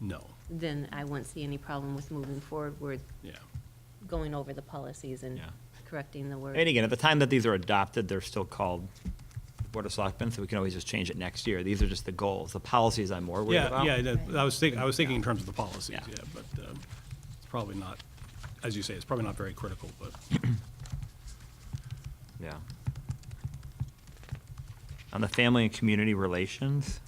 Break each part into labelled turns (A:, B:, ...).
A: No,
B: then I wouldn't see any problem with moving forward with
A: yeah,
B: going over the policies and
C: Yeah.
B: correcting the word.
C: And again, at the time that these are adopted, they're still called Board of Selectmen, so we can always just change it next year. These are just the goals. The policies I'm more worried
A: yeah,
C: about.
A: yeah. that- I was thinking, I was thinking in terms of the policies,
C: Yeah.
A: yeah, but um, it's probably not, as you say, it's probably not very critical, but
C: Yeah. On the family and community relations,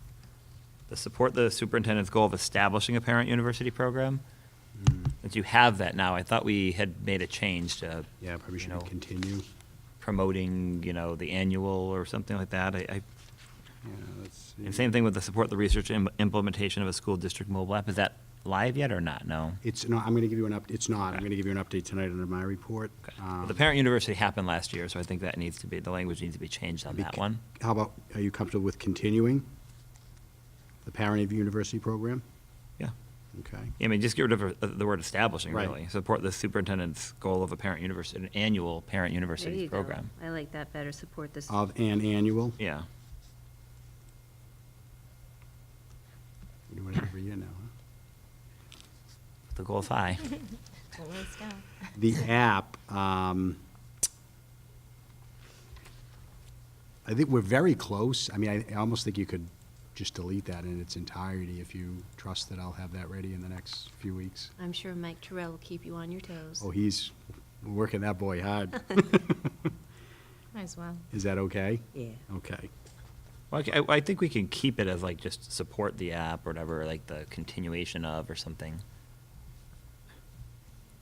C: the support the superintendent's goal of establishing a parent university program.
D: Mm-hmm.
C: Since you have that now, I thought we had made a change to.
D: Yeah, probably
C: you
D: should
C: know,
D: we continue.
C: Promoting, you know, the annual or something like that. I, I,
D: Yeah, let's see.
C: and same thing with the support the research im- implementation of a school district mobile app. Is that live yet or not? No.
D: It's, no, I'm going to give you an up, it's not. I'm going to give you an update tonight under my report.
C: Okay.
D: Um,
C: Well, The parent university happened last year, so I think that needs to be, the language needs to be changed on
D: bec-
C: that one.
D: How about, are you comfortable with continuing the Parent of University program?
C: Yeah.
D: Okay.
C: I mean, just get rid of uh, the word establishing,
D: Right.
C: really. Support the superintendent's goal of a parent university, an annual parent
B: There
C: university
B: you go.
C: program.
B: I like that better, support this.
D: Of an annual?
C: Yeah.
D: We do it every year now, huh?
C: The goal's high.
E: Always down.
D: The app, um, I think we're very close. I mean, I- I almost think you could just delete that in its entirety if you trust that I'll have that ready in the next few weeks.
B: I'm sure Mike Terrell will keep you on your toes.
D: Oh, he's working that boy hard.
E: Might as well.
D: Is that okay?
B: Yeah.
D: Okay.
C: Well, I, I think we can keep it as like just support the app or whatever, like the continuation of or something.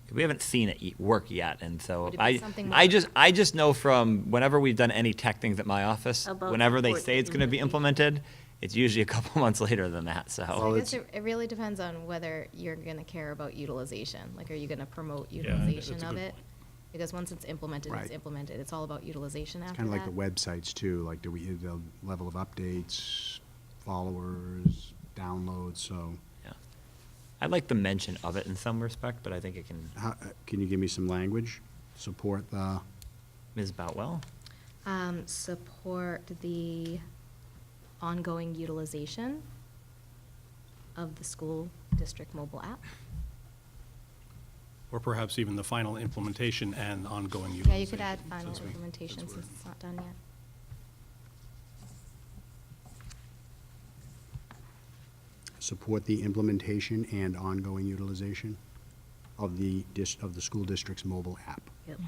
C: 'Cause We haven't seen it y- work yet, and so
E: Would it be
C: I,
E: something
C: I
E: like-
C: just, I just know from whenever we've done any tech things at my office,
B: About
C: whenever they
B: support
C: say
B: the
C: it's gonna be
B: community.
C: implemented, it's usually a couple months later than that,
D: Well,
E: So I
C: so.
E: guess
D: it's-
E: it, it really depends on whether you're gonna care about utilization. Like, are you gonna promote
A: Yeah, that's
E: utilization
A: a
E: of
A: good
E: it?
A: point.
E: Because once it's implemented,
D: Right.
E: it's implemented. It's all about utilization
D: It's
E: after
D: kind
E: that.
D: of like the websites too, like do we, the level of updates, followers, downloads, so.
C: yeah. I like the mention of it in some respect, but I think it can,
D: How, uh, can you give me some language? Support the,
C: Ms. Boutwell?
E: Um, support the ongoing utilization of the school district mobile app.
A: or perhaps even the final implementation and ongoing
E: Yeah,
A: utilization.
E: you could add final
A: since we-
E: implementation
A: since we're-
E: since it's not done yet.
D: support the implementation and ongoing utilization of the dis, of the school district's mobile app.
B: Yep.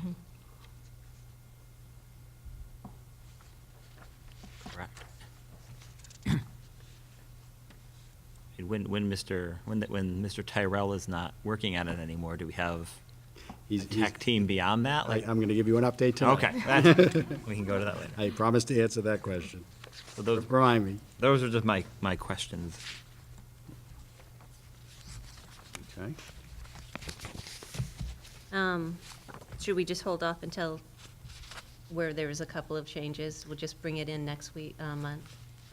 C: Correct. And when, when Mr., when, the- when Mr. Tyrell is not working on it anymore, do we have a
D: He's- he's-
C: tech team beyond that?
D: I,
C: Like,
D: I'm gonna give you an update tonight.
C: okay, that- we can go to that later.
D: I promise to answer that question.
C: So those,
D: Remind me.
C: those are just my, my questions.
D: Okay.
B: Um, should we just hold off until where there was a couple of changes? We'll just bring it in next week, uh, month,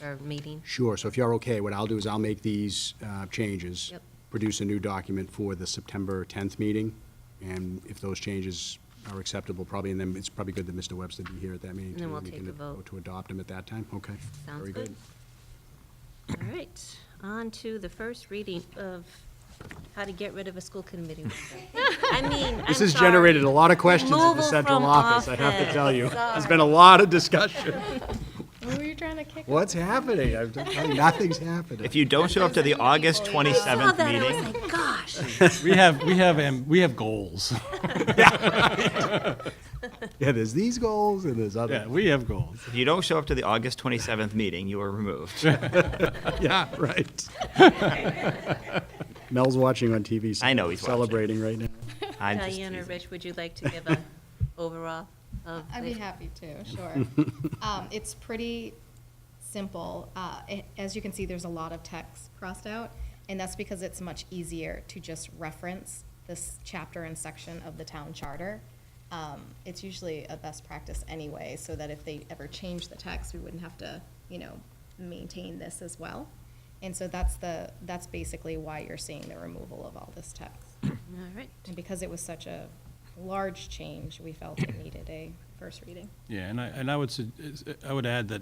B: or meeting?
D: Sure, so if you're okay, what I'll do is I'll make these uh, changes.
B: Yep.
D: Produce a new document for the September 10th meeting, and if those changes are acceptable, probably, and then it's probably good that Mr. Webster be here at that meeting.
B: And then
D: too,
B: we'll
D: we
B: take
D: can
B: a vote.
D: To adopt them at that time, okay.
B: Sounds
D: Very
B: good. All right, on to the first reading of how to get rid of a school committee member. I mean, I'm
D: This has
B: sorry.
D: generated a lot of questions at the
B: Removal
D: central
B: from
D: office, I have to tell you.
B: office.
D: There's been a lot of discussion.
E: What were you trying to kick?
D: What's happening? I'm telling you, Nothing's happening.
C: If you don't show up to the August
B: I saw
C: 27th
B: Oh, that, I was
C: meeting,
B: like, gosh.
A: We have, we have, am- we have goals.
D: Yeah, there's these goals and there's
A: Yeah,
D: other.
A: we have goals.
C: if you don't show up to the August 27th meeting, you are removed.
D: Yeah, right. Mel's watching on TV.
C: I know he's watching.
D: Celebrating right now.
C: I'm just
B: Diane or
C: teasing.
B: Rich, would you like to give a overall of?
E: I'd be
B: the-
E: happy to, sure. Um, it's pretty simple. Uh, it- as you can see, there's a lot of text crossed out, and that's because it's much easier to just reference this chapter and section of the town charter. Um, it's usually a best practice anyway, so that if they ever change the text, we wouldn't have to, you know, maintain this as well. And so that's the, that's basically why you're seeing the removal of all this text.
B: All right.
E: And because it was such a large change, we felt it needed a first reading.
A: Yeah, and I, and I would, sug- is- I would add that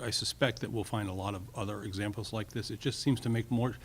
A: I suspect that we'll find a lot of other examples like this. It just seems to make more,